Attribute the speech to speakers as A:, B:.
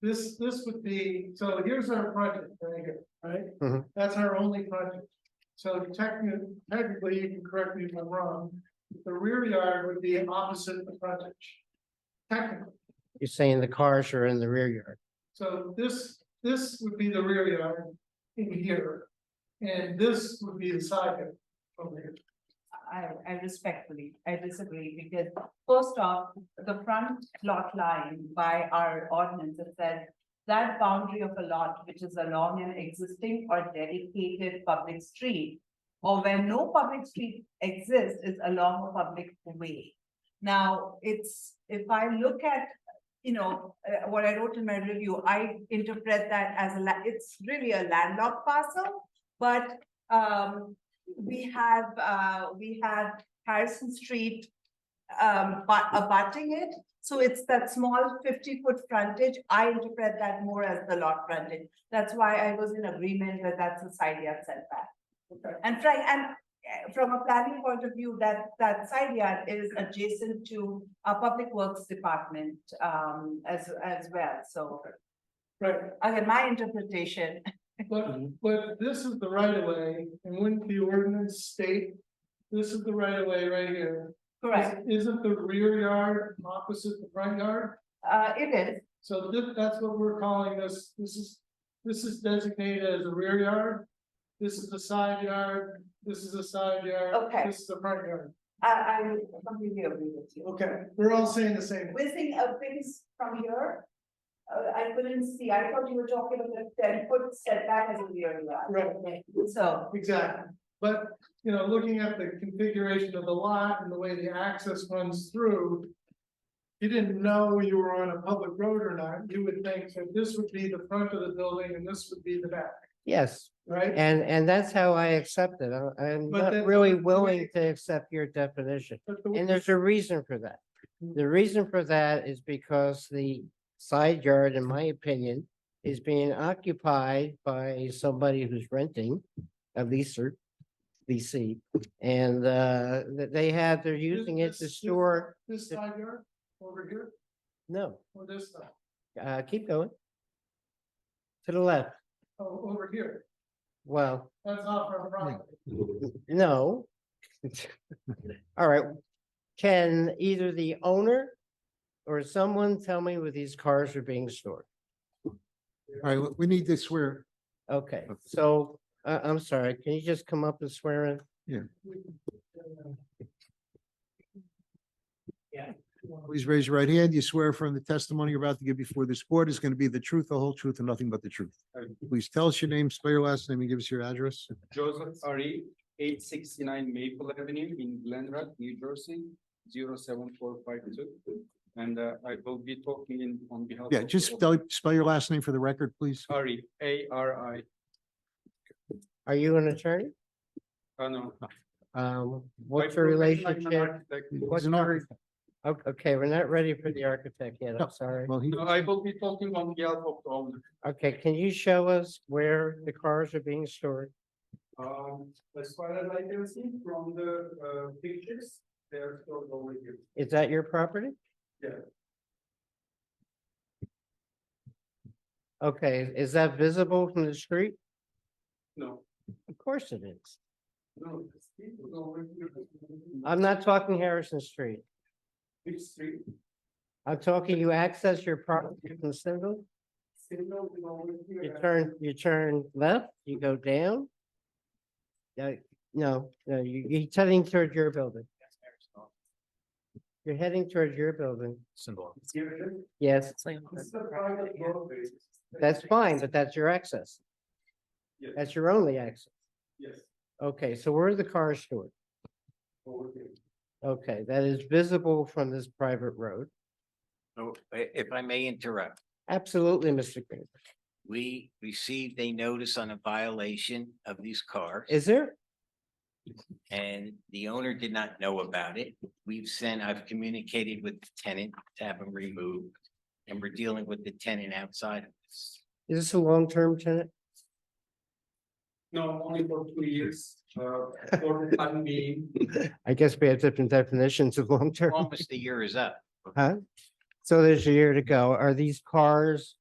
A: This, this would be, so here's our project right here, right?
B: Mhm.
A: That's our only project. So technically, technically, you can correct me if I'm wrong, the rear yard would be opposite the project. Technically,
B: You're saying the cars are in the rear yard.
A: so this, this would be the rear yard in here. And this would be the side yard over here.
C: I, I respectfully, I disagree because first off, the front lot line by our ordinance, it says that boundary of a lot which is along an existing or dedicated public street or where no public street exists is along a public way. Now, it's, if I look at, you know, uh, what I wrote in my review, I interpret that as a, la- it's really a landlocked parcel. But, um, we have, uh, we have Harrison Street, um, but abutting it. So it's that small fifty-foot frontage. I interpret that more as the lot frontage. That's why I was in agreement that that's a side yard setback.
A: Okay.
C: And Frank, and uh, from a planning point of view, that, that side yard is adjacent to our public works department, um, as, as well. So,
A: Right,
C: again, my interpretation,
A: but, but this is the right of way, and wouldn't the ordinance state? This is the right of way right here.
C: correct,
A: Isn't the rear yard opposite the front yard?
C: uh, it is,
A: So thi- that's what we're calling this, this is, this is designated as a rear yard. This is a side yard, this is a side yard.
C: Okay.
A: This is a front yard.
C: I, I completely agree with you.
A: Okay, we're all saying the same.
C: We're seeing uh, things from here. Uh, I couldn't see, I thought you were talking about ten foot setback as a rear yard.
A: Right,
C: So,
A: exactly. But, you know, looking at the configuration of the lot and the way the access runs through. You didn't know you were on a public road or not, you would think that this would be the front of the building and this would be the back,
B: Yes,
A: right?
B: and, and that's how I accept it. I- I'm
A: But
B: not
A: that's
B: really
A: not the
B: willing
A: way-
B: to accept your definition.
A: But the-
B: And there's a reason for that. The reason for that is because the side yard, in my opinion, is being occupied by somebody who's renting a leaser, leasee. And, uh, that they have, they're using it
A: this-
B: to
A: this-
B: store,
A: This side yard, over here,
B: no,
A: or this side,
B: uh, keep going. To the left,
A: oh, over here,
B: well,
A: that's not our property.
B: No. All right, can either the owner or someone tell me where these cars are being stored?
D: All right, we- we need to swear.
B: Okay, so, uh, I'm sorry, can you just come up and swear in?
D: Please raise your right hand. You swear from the testimony you're about to give before this board is going to be the truth, the whole truth, and nothing but the truth. Please tell us your name, spell your last name, and give us your address.
E: Joseph Ari, eight sixty-nine Maple Avenue in Glen Rock, New Jersey, 07452, And uh, I will be talking in on behalf.
D: Yeah,
E: of
D: just spell, spell your last name for the record, please.
A: Uh,
E: Ari, A R I,
B: Are you an attorney?
E: oh no.
B: Um,
E: By
B: what's your
E: profession, I'm an
B: relationship?
E: architect.
D: He's an architect.
B: O- Okay, we're not ready for the architect yet,
D: No.
B: I'm sorry.
D: Well, he,
E: No, I will be talking on behalf of the owner.
B: Okay, can you show us where the cars are being stored?
E: Um, as far as I can see from the uh pictures, they are stored over here.
B: Is that your property?
E: Yeah.
B: Okay, is that visible from the street?
E: No,
B: Of course it is.
E: no, it's over here.
B: I'm not talking Harrison Street.
E: Which street?
B: I'm talking you access your property from Single,
E: Signal is over here.
B: you turn, you turn left, you go down. No, no, no, you, you're heading toward your building. You're heading toward your building.
E: Here it is.
B: Yes,
E: This is a private roadway.
B: that's fine, but that's your access.
E: Yes.
B: That's your only access.
E: Yes,
B: Okay, so where are the cars stored?
E: over here.
B: Okay, that is visible from this private road.
F: So i- if I may interrupt,
B: Absolutely, Mr. Green.
F: we received a notice on a violation of these cars
B: Is there?
F: and the owner did not know about it. We've sent, I've communicated with the tenant to have them removed. And we're dealing with the tenant outside of this.
B: Is this a long-term tenant?
E: No, only for two years, uh, for the time being.
B: I guess we have different definitions of long-term.
F: Almost the year is up.
B: So there's a year to go. Are these cars